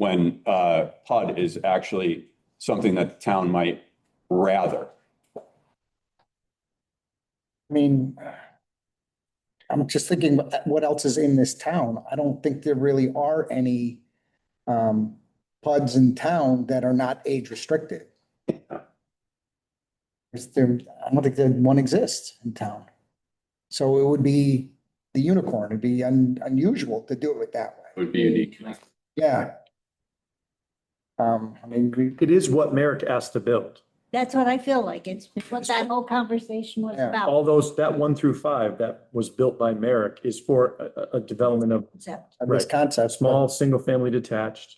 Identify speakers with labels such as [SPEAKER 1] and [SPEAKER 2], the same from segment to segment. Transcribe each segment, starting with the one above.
[SPEAKER 1] when uh, PUD is actually something that the town might rather.
[SPEAKER 2] I mean, I'm just thinking what else is in this town. I don't think there really are any um, PUDs in town that are not age restricted. Is there, I don't think that one exists in town. So it would be the unicorn. It'd be un- unusual to do it that way.
[SPEAKER 1] Would be unique.
[SPEAKER 2] Yeah. Um, I mean, we,
[SPEAKER 3] It is what Merrick asked to build.
[SPEAKER 4] That's what I feel like. It's what that whole conversation was
[SPEAKER 2] Yeah.
[SPEAKER 4] about.
[SPEAKER 3] All those, that one through five that was built by Merrick is for a, a- a development of
[SPEAKER 4] Except
[SPEAKER 2] of this
[SPEAKER 3] Right.
[SPEAKER 2] concept. but-
[SPEAKER 3] small, single-family detached,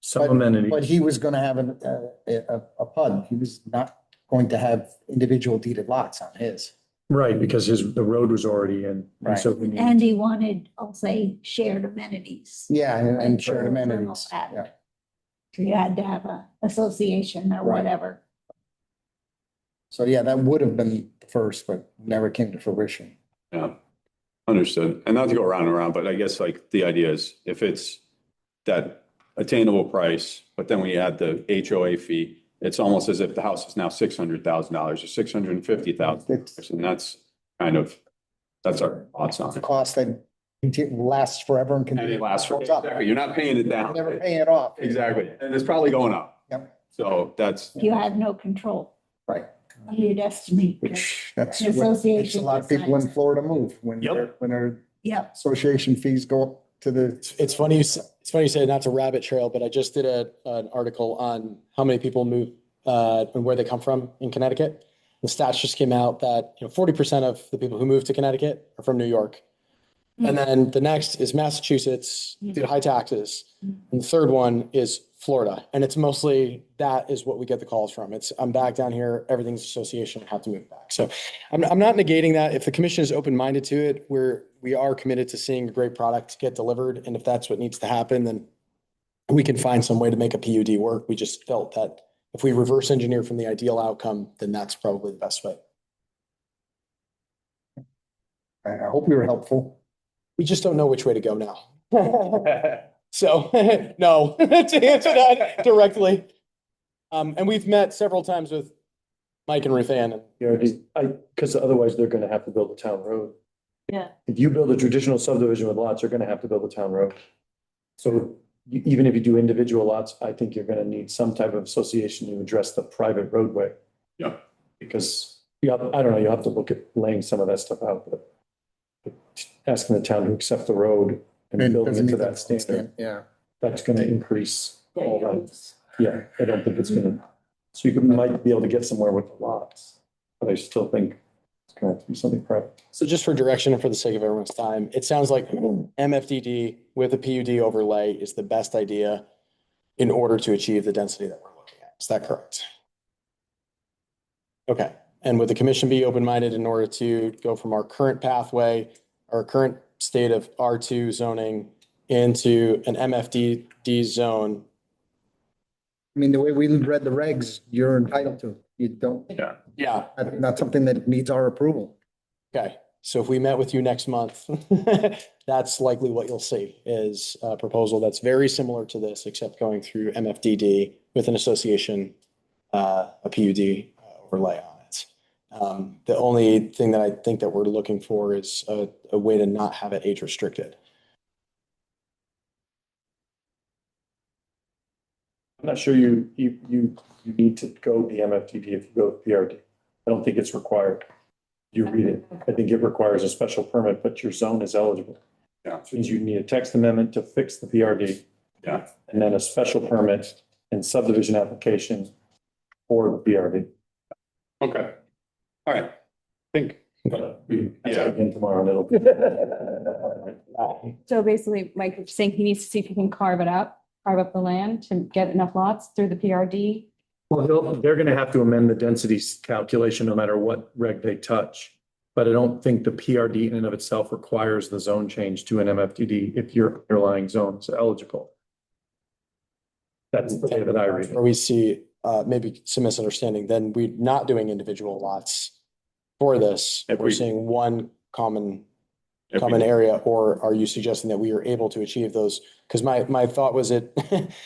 [SPEAKER 3] some amenities.
[SPEAKER 2] But he was gonna have an, uh, a, a, a PUD. He was not going to have individual deeded lots on his.
[SPEAKER 3] Right, because his, the road was already in. and so we need-
[SPEAKER 4] Andy wanted, I'll say, shared amenities.
[SPEAKER 2] Yeah, and, and
[SPEAKER 4] Like
[SPEAKER 2] shared
[SPEAKER 4] for- for
[SPEAKER 2] amenities.
[SPEAKER 4] that.
[SPEAKER 2] Yeah.
[SPEAKER 4] So you had to have a association or
[SPEAKER 2] Right.
[SPEAKER 4] whatever.
[SPEAKER 2] So yeah, that would have been the first, but never came to fruition.
[SPEAKER 1] Yeah, understood. And not to go around and around, but I guess like the idea is if it's that attainable price, but then we add the HOA fee, it's almost as if the house is now six hundred thousand dollars or six hundred and fifty thousand.
[SPEAKER 2] It's
[SPEAKER 1] And that's kind of, that's our thoughts on
[SPEAKER 2] it's a
[SPEAKER 1] it.
[SPEAKER 2] cost that conti- lasts forever and
[SPEAKER 1] And it
[SPEAKER 2] can
[SPEAKER 1] lasts for,
[SPEAKER 2] Holds up.
[SPEAKER 1] exactly, you're not paying it down.
[SPEAKER 2] never pay it off.
[SPEAKER 1] Exactly, and it's probably going up.
[SPEAKER 2] Yep.
[SPEAKER 1] So that's,
[SPEAKER 4] You have no control.
[SPEAKER 2] Right.
[SPEAKER 4] You'd estimate.
[SPEAKER 2] Which that's
[SPEAKER 4] The
[SPEAKER 2] what makes a
[SPEAKER 4] association
[SPEAKER 2] lot of people in
[SPEAKER 4] decides.
[SPEAKER 2] Florida move when
[SPEAKER 3] Yep.
[SPEAKER 2] their, when their
[SPEAKER 4] Yep.
[SPEAKER 2] association fees go up to the,
[SPEAKER 5] It's- It's funny, you s- it's funny you say not to rabbit trail, but I just did a, an article on how many people move, uh, and where they come from in Connecticut. The stats just came out that, you know, forty percent of the people who move to Connecticut are from New York. And then the next is Massachusetts due to high taxes.
[SPEAKER 4] Mm.
[SPEAKER 5] And the third one is Florida. And it's mostly, that is what we get the calls from. It's, I'm back down here, everything's association, I have to move back. So I'm, I'm not negating that. If the commission is open-minded to it, we're, we are committed to seeing a great product get delivered. And if that's what needs to happen, then we can find some way to make a PUD work. We just felt that if we reverse engineer from the ideal outcome, then that's probably the best way.
[SPEAKER 2] I, I hope we were helpful.
[SPEAKER 5] We just don't know which way to go now. So, no, to answer that directly. Um, and we've met several times with Mike and Ruth Ann. and
[SPEAKER 3] You know, these- I, because otherwise they're gonna have to build a town road.
[SPEAKER 4] Yeah.
[SPEAKER 3] If you build a traditional subdivision with lots, you're gonna have to build a town road. So you- even if you do individual lots, I think you're gonna need some type of association to address the private roadway.
[SPEAKER 1] Yeah.
[SPEAKER 3] Because you have, I don't know, you'll have to look at laying some of that stuff out, but but asking the town to accept the road and building
[SPEAKER 2] Doesn't
[SPEAKER 3] into
[SPEAKER 2] meet
[SPEAKER 3] that standard,
[SPEAKER 2] Yeah.
[SPEAKER 3] that's gonna increase all that. Yeah, I don't think it's gonna, so you could- might be able to get somewhere with the lots, but I still think it's gonna have to be something private.
[SPEAKER 5] So just for direction and for the sake of everyone's time, it sounds like MFDD with a PUD overlay is the best idea in order to achieve the density that we're looking at. Is that correct? Okay, and would the commission be open-minded in order to go from our current pathway, our current state of R2 zoning into an MFDD zone?
[SPEAKER 2] I mean, the way we read the regs, you're entitled to. You don't,
[SPEAKER 5] Yeah,
[SPEAKER 2] that's not something that needs our approval.
[SPEAKER 5] okay. So if we met with you next month, that's likely what you'll see is a proposal that's very similar to this, except going through MFDD with an association, uh, a PUD uh, overlay on it. Um, the only thing that I think that we're looking for is a, a way to not have it age restricted.
[SPEAKER 3] I'm not sure you, you, you, you need to go the MFTP if you go with PRD. I don't think it's required. You read it. I think it requires a special permit, but your zone is eligible.
[SPEAKER 1] Yeah.
[SPEAKER 3] Which means you need a text amendment to fix the PRD.
[SPEAKER 1] Yeah.
[SPEAKER 3] And then a special permit and subdivision application for the PRD.
[SPEAKER 1] okay. All right,
[SPEAKER 3] But uh, we-
[SPEAKER 1] Yeah.
[SPEAKER 3] Again tomorrow and it'll.
[SPEAKER 6] So basically, Mike was saying he needs to see if he can carve it up, carve up the land to get enough lots through the PRD.
[SPEAKER 3] Well, he'll- they're gonna have to amend the density calculation no matter what reg they touch. But I don't think the PRD in and of itself requires the zone change to an MFDD if your underlying zone is eligible. That's the way that I read
[SPEAKER 5] Where
[SPEAKER 3] it.
[SPEAKER 5] we see, uh, maybe some misunderstanding, then we're not doing individual lots for this.
[SPEAKER 1] If
[SPEAKER 5] We're
[SPEAKER 1] we-
[SPEAKER 5] seeing one common
[SPEAKER 1] If we-
[SPEAKER 5] common area, or are you suggesting that we are able to achieve those? Because my, my thought was it,